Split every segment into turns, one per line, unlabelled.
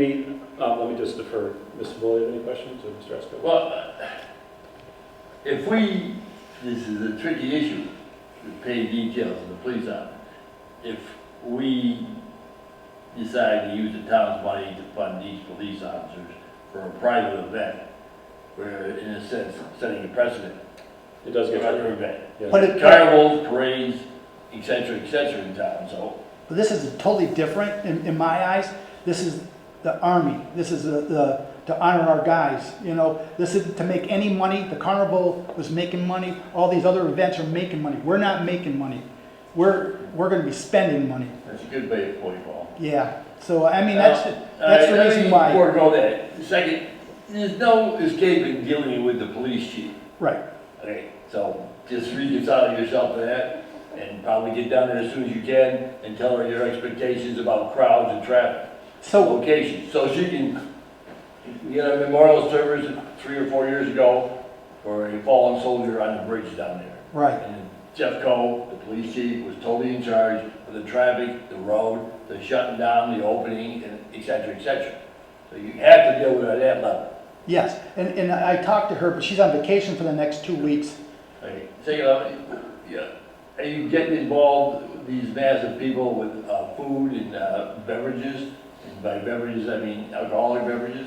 Any, um, let me just defer. Mr. Bully, have any questions, or Mr. Esco?
Well, uh, if we, this is a tricky issue, the pay details of the police officer. If we decide to use the town's money to fund these police officers for a private event, we're in a sense setting a precedent
It does
for
get better.
other events.
But it, but
Carnivals, parades, et cetera, et cetera in town, so.
this is totally different in, in my eyes. This is the army. This is the, the, to honor our guys, you know? This is to make any money. The carnival was making money. All these other events are making money. We're not making money. We're, we're gonna be spending money.
That's a good way of putting it, Paul.
Yeah, so I mean, that's,
Uh,
that's the
let me
reason why,
Forego that. Second, there's no escaping dealing with the police chief.
right.
Okay, so just reconcile yourself to that and probably get down there as soon as you can and tell her your expectations about crowds and traffic,
So,
locations. So she can, you know, memorial service three or four years ago for a fallen soldier on the bridge down there.
right,
And Jeff Cole, the police chief, was totally in charge of the traffic, the road, the shutting down, the opening, and et cetera, et cetera. So you have to deal with it at that level.
yes. And, and I talked to her, but she's on vacation for the next two weeks.
Okay, Second, uh, yeah, are you getting involved, with these massive people with uh, food and uh, beverages? And by beverages, I mean alcoholic beverages?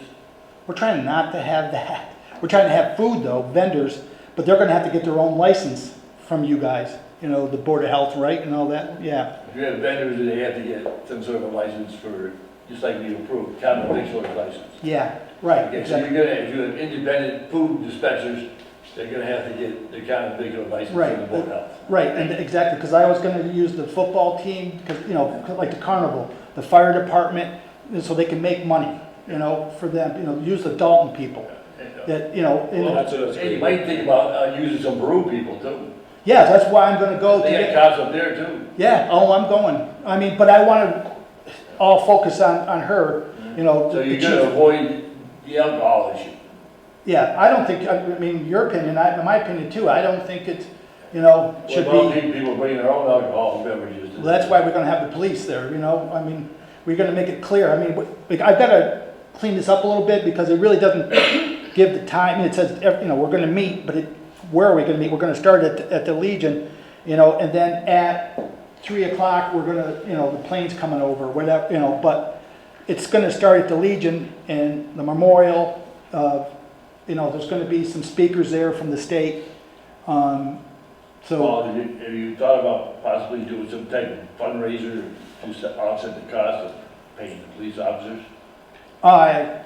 We're trying not to have that. We're trying to have food though, vendors, but they're gonna have to get their own license from you guys, you know, the Board of Health, right, and all that, yeah.
If you have vendors, they have to get some sort of a license for, just like we approved, common victualer's license.
Yeah, right,
Okay, so you're
exactly,
gonna, if you have independent food dispensers, they're gonna have to get their kind of bigger license
Right,
from the board health.
right, and exactly, because I was gonna use the football team, because, you know, 'cause like the carnival, the fire department, and so they can make money, you know, for them, you know, use the Dalton people, that, you know,
Well,
and,
that's, that's
Hey, uh, you
great.
might think about uh, using some brew people too.
yeah, that's why I'm gonna go to
They
get
have cops up there too.
Yeah, oh, I'm going, I mean, but I wanna all focus on, on her, you know.
So
the
you're
chief.
gonna avoid the alcohol issue.
Yeah, I don't think, I mean, your opinion, I, in my opinion too, I don't think it, you know, should
Well,
be,
people- people bring their own alcohol beverages. to-
well, that's why we're gonna have the police there, you know, I mean, we're gonna make it clear, I mean, we- like, I've gotta clean this up a little bit, because it really doesn't give the time, it says, ev- you know, we're gonna meet, but it, where are we gonna meet, we're gonna start at, at the Legion, you know, and then at three o'clock, we're gonna, you know, the plane's coming over, whatever, you know, but it's gonna start at the Legion and the memorial, uh, you know, there's gonna be some speakers there from the state, um, so,
Well, have you, have you thought about possibly doing some type of fundraiser to s- offset the cost of paying the police officers?
I,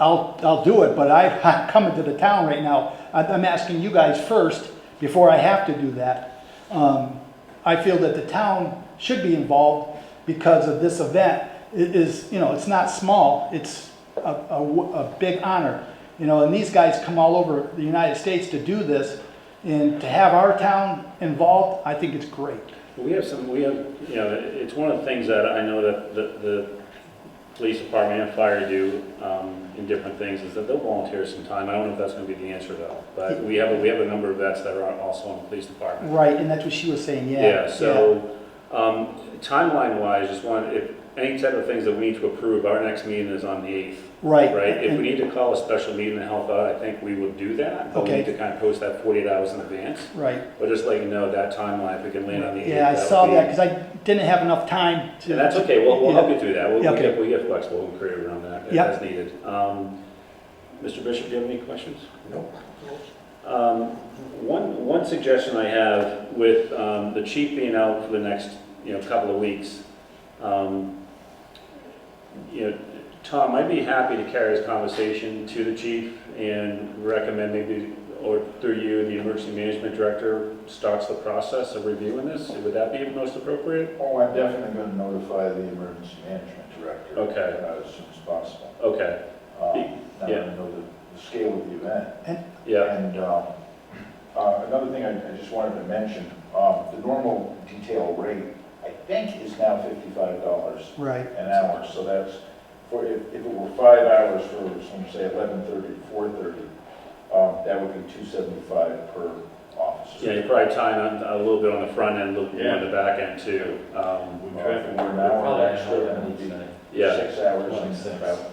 I'll, I'll do it, but I, I'm coming to the town right now. I'm, I'm asking you guys first before I have to do that. Um, I feel that the town should be involved because of this event. It is, you know, it's not small, it's a, a w- a big honor. You know, and these guys come all over the United States to do this and to have our town involved, I think it's great.
We have some, we have, you know, it's one of the things that I know that the, the police department and fire do um, in different things, is that they'll volunteer some time. I don't know if that's gonna be the answer though, but we have, a we have a number of vets that are also in the police department.
Right, and that's what she was saying, yeah.
Yeah, so, um, timeline wise, just want, if, any type of things that we need to approve, our next meeting is on the eighth.
Right.
Right, if
and-
we need to call a special meeting to help out, I think we would do that, but we
Okay.
need to kind of post that forty-eight hours in advance.
Right.
But just let you know that timeline, if we can land on the eighth.
Yeah, I
would
saw
be-
that, because I didn't have enough time to.
And that's okay, we'll, we'll help you through that, we'll,
Yeah,
we
okay.
get, we get flexible and creative around that if
Yeah.
that's needed. Um, Mr. Bishop, do you have any questions?
No.
Um, One, one suggestion I have with um, the chief being out for the next, you know, couple of weeks, um, you know, Tom, I'd be happy to carry this conversation to the chief and recommend maybe, or through you, the emergency management director starts the process of reviewing this. Would that be most appropriate?
Oh, I'm definitely going to notify the emergency management director.
Okay.
uh, As soon as possible.
Okay,
Um, Now that
Yeah.
I know the, the scale of the event.
yeah,
And um, uh, another thing I I just wanted to mention, um, the normal detail rate, I think, is now $55
Right,
an hour. So that's, for, if if it were five hours for, some say, 11:30 to 4:30, um, that would be 275 per officer.
Yeah, you're probably tying on a little bit on the front end, a little bit on the back end too. Um,
Uh, If it were an hour extra, that would be
Yeah,
six hours and about